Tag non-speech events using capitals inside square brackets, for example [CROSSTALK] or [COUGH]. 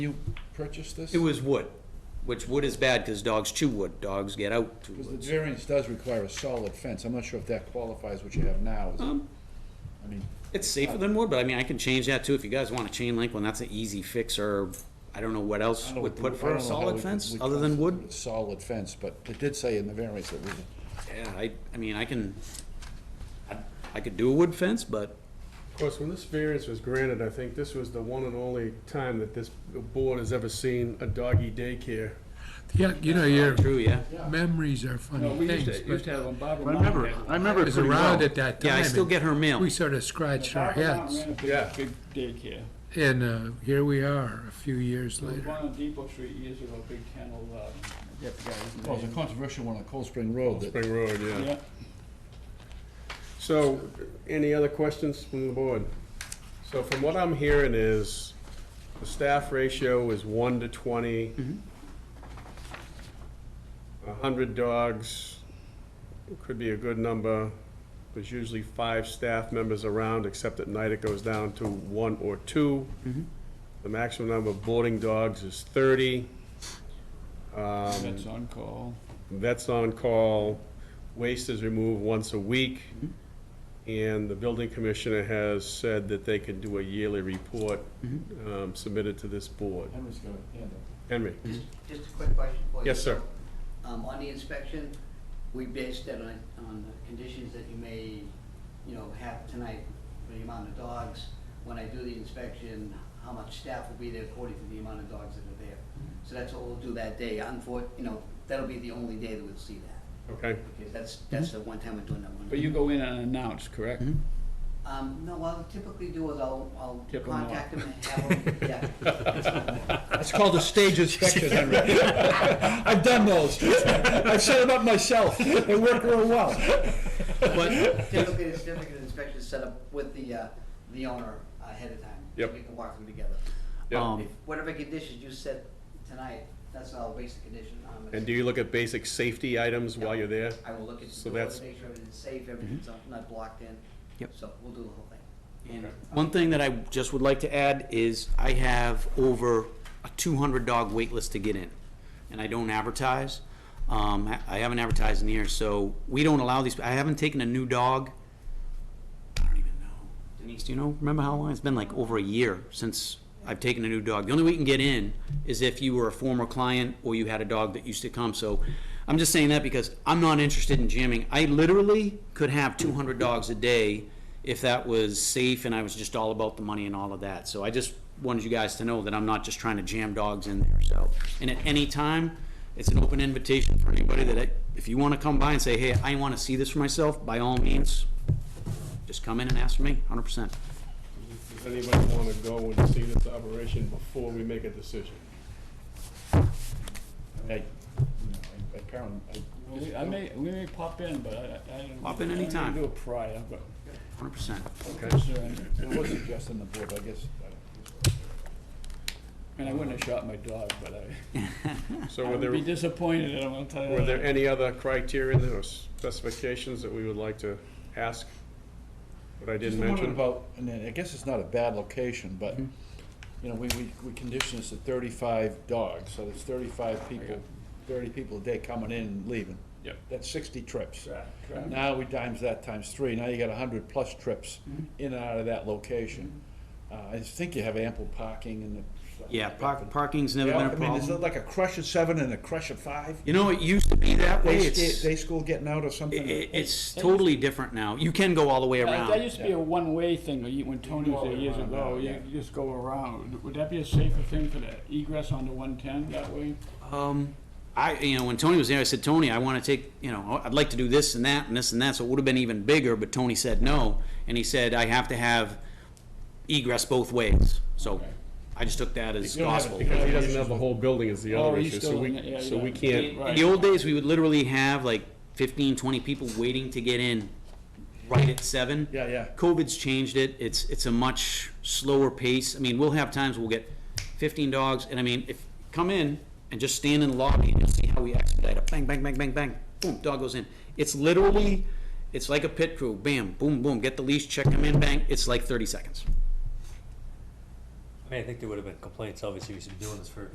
You purchased this? It was wood, which wood is bad because dogs chew wood. Dogs get out to Because the wood. variance does require a solid fence, I'm not sure if that qualifies what you have now, is it? Um, I mean, It's safer than wood, but I mean, I can change that too. If you guys want a chain link one, that's an easy fix or I don't know what I else don't know would what the- I put for don't a know how we solid could- fence we other than wood. constitute a Solid fence, but it did say in the variance that was, Yeah, I, I mean, I can, I, I could do a wood fence, but Of course, when this variance was granted, I think this was the one and only time that this board has ever seen a doggy daycare. Yeah, you know, your true, yeah. memories are funny things, but have them Barbara I remember, it. I remember it it was pretty well. around at that time. Yeah, I still and get her mail. We sort of scratched our heads, Yeah. Big daycare. and uh, here we are, a few years There was one later. on Depot Street years ago, big kennel, uh, I forget the well, guy's it was Oh, a name. controversial one on Cold Spring Road that Spring Road, yeah. Yeah, So, any other questions from the board? So from what I'm hearing is, the staff ratio is one to twenty. A hundred dogs could be a good number. There's usually five staff members around, except at night it goes down to one or two. The maximum number of boarding dogs is thirty. Um, that's on call. Vets on call, waste is removed once a week, and the building commissioner has said that they can do a yearly report um, submitted to this board. Henry's gonna handle. Henry? Just a quick question for you. Yes, sir. Um, on the inspection, we based it on, on the conditions that you may, you know, have tonight for the amount of dogs. When I do the inspection, how much staff will be there according to the amount of dogs that are there. So that's what we'll do that day. Unfor, you know, that'll be the only day that we'll see that, Okay, because that's, that's the one time we're doing that one. But you go in unannounced, correct? Um, no, what I'll typically do is I'll, I'll Tip 'em off. contact them and have them, [LAUGHS] yeah. It's called a stage inspection, Henry. I've done those. I've set them up myself. They work real well. But Typically, the certificate of inspection is set up with the, uh, the owner ahead of time. so Yep. We can walk them together. yeah. Um, If Whatever conditions you set tonight, that's all basic condition. um, And do you look at basic safety items while you're there? I will look at So the door, that's- make sure everything's safe, everything's not blocked in. Mm-hmm. Yep. So we'll do the whole thing. And one thing that I just would like to add is I have over a two hundred dog wait list to get in, and I don't advertise. Um, I- I haven't advertised in years, so we don't allow these, I haven't taken a new dog. I don't even know. Denise, do you know, remember how long? It's been like over a year since I've taken a new dog. The only way you can get in is if you were a former client or you had a dog that used to come. So I'm just saying that because I'm not interested in jamming. I literally could have 200 dogs a day if that was safe and I was just all about the money and all of that. So I just wanted you guys to know that I'm not just trying to jam dogs in there. So, and at any time, it's an open invitation for anybody that I, if you want to come by and say, hey, I want to see this for myself, by all means, just come in and ask for me, hundred percent. Does anybody want to go and see this operation before we make a decision? I, you know, I- apparently, I- We- I may, we may pop in, but I, I I don't. Pop in I don't anytime. Do it prior, but. Hundred percent. concern. it was suggested on the board, but I guess. I- And I wouldn't have shot my dog, but I, So I were would be there, disappointed, I'm gonna tell you were there that. any other criteria or specifications that we would like to ask? That I Just didn't wondering mention? about, and then, I guess it's not a bad location, but, you know, we, we, we condition this at thirty-five dogs, so there's thirty-five people, thirty people a day coming in and leaving. Yep. That's sixty trips. Correct. Now we times that times three, now you got a hundred plus trips in and out of that location. Uh, I think you have ample parking and the. stuff Yeah, like that, park, but- parking's never Yeah, been a I mean, is it problem. like a crush of seven and a crush of five? You know, it used to be that way, Day, it's, sta- it, day school getting out or something? it's totally different now. You can go all the way That that around. used to be a one-way thing, when you- when Tony was there years ago, you you just go around. Would that be a safer thing for the egress onto one-ten that way? Um, I, you know, when Tony was there, I said, Tony, I wanna take, you know, I'd like to do this and that and this and that, so it would've been even bigger, but Tony said no. And he said, I have to have egress both ways, so I just took that as You don't have it gospel. Because he doesn't have the whole building is the Oh, other he's issue, so still in it, we, yeah, so yeah. we can't. In the old days, we would literally have like 15, 20 people waiting to get in right at seven. Yeah, yeah. COVID's changed it. It's, it's a much slower pace. I mean, we'll have times we'll get 15 dogs, and I mean, if, come in and just stand in the lobby and you'll see how we expedite it. Bang, bang, bang, bang, bang, boom, dog goes in. It's literally, it's like a pit crew. Bam, boom, boom, get the leash, check them in, bang. It's like 30 seconds. I mean, I think there would have been complaints, obviously, we've been doing this for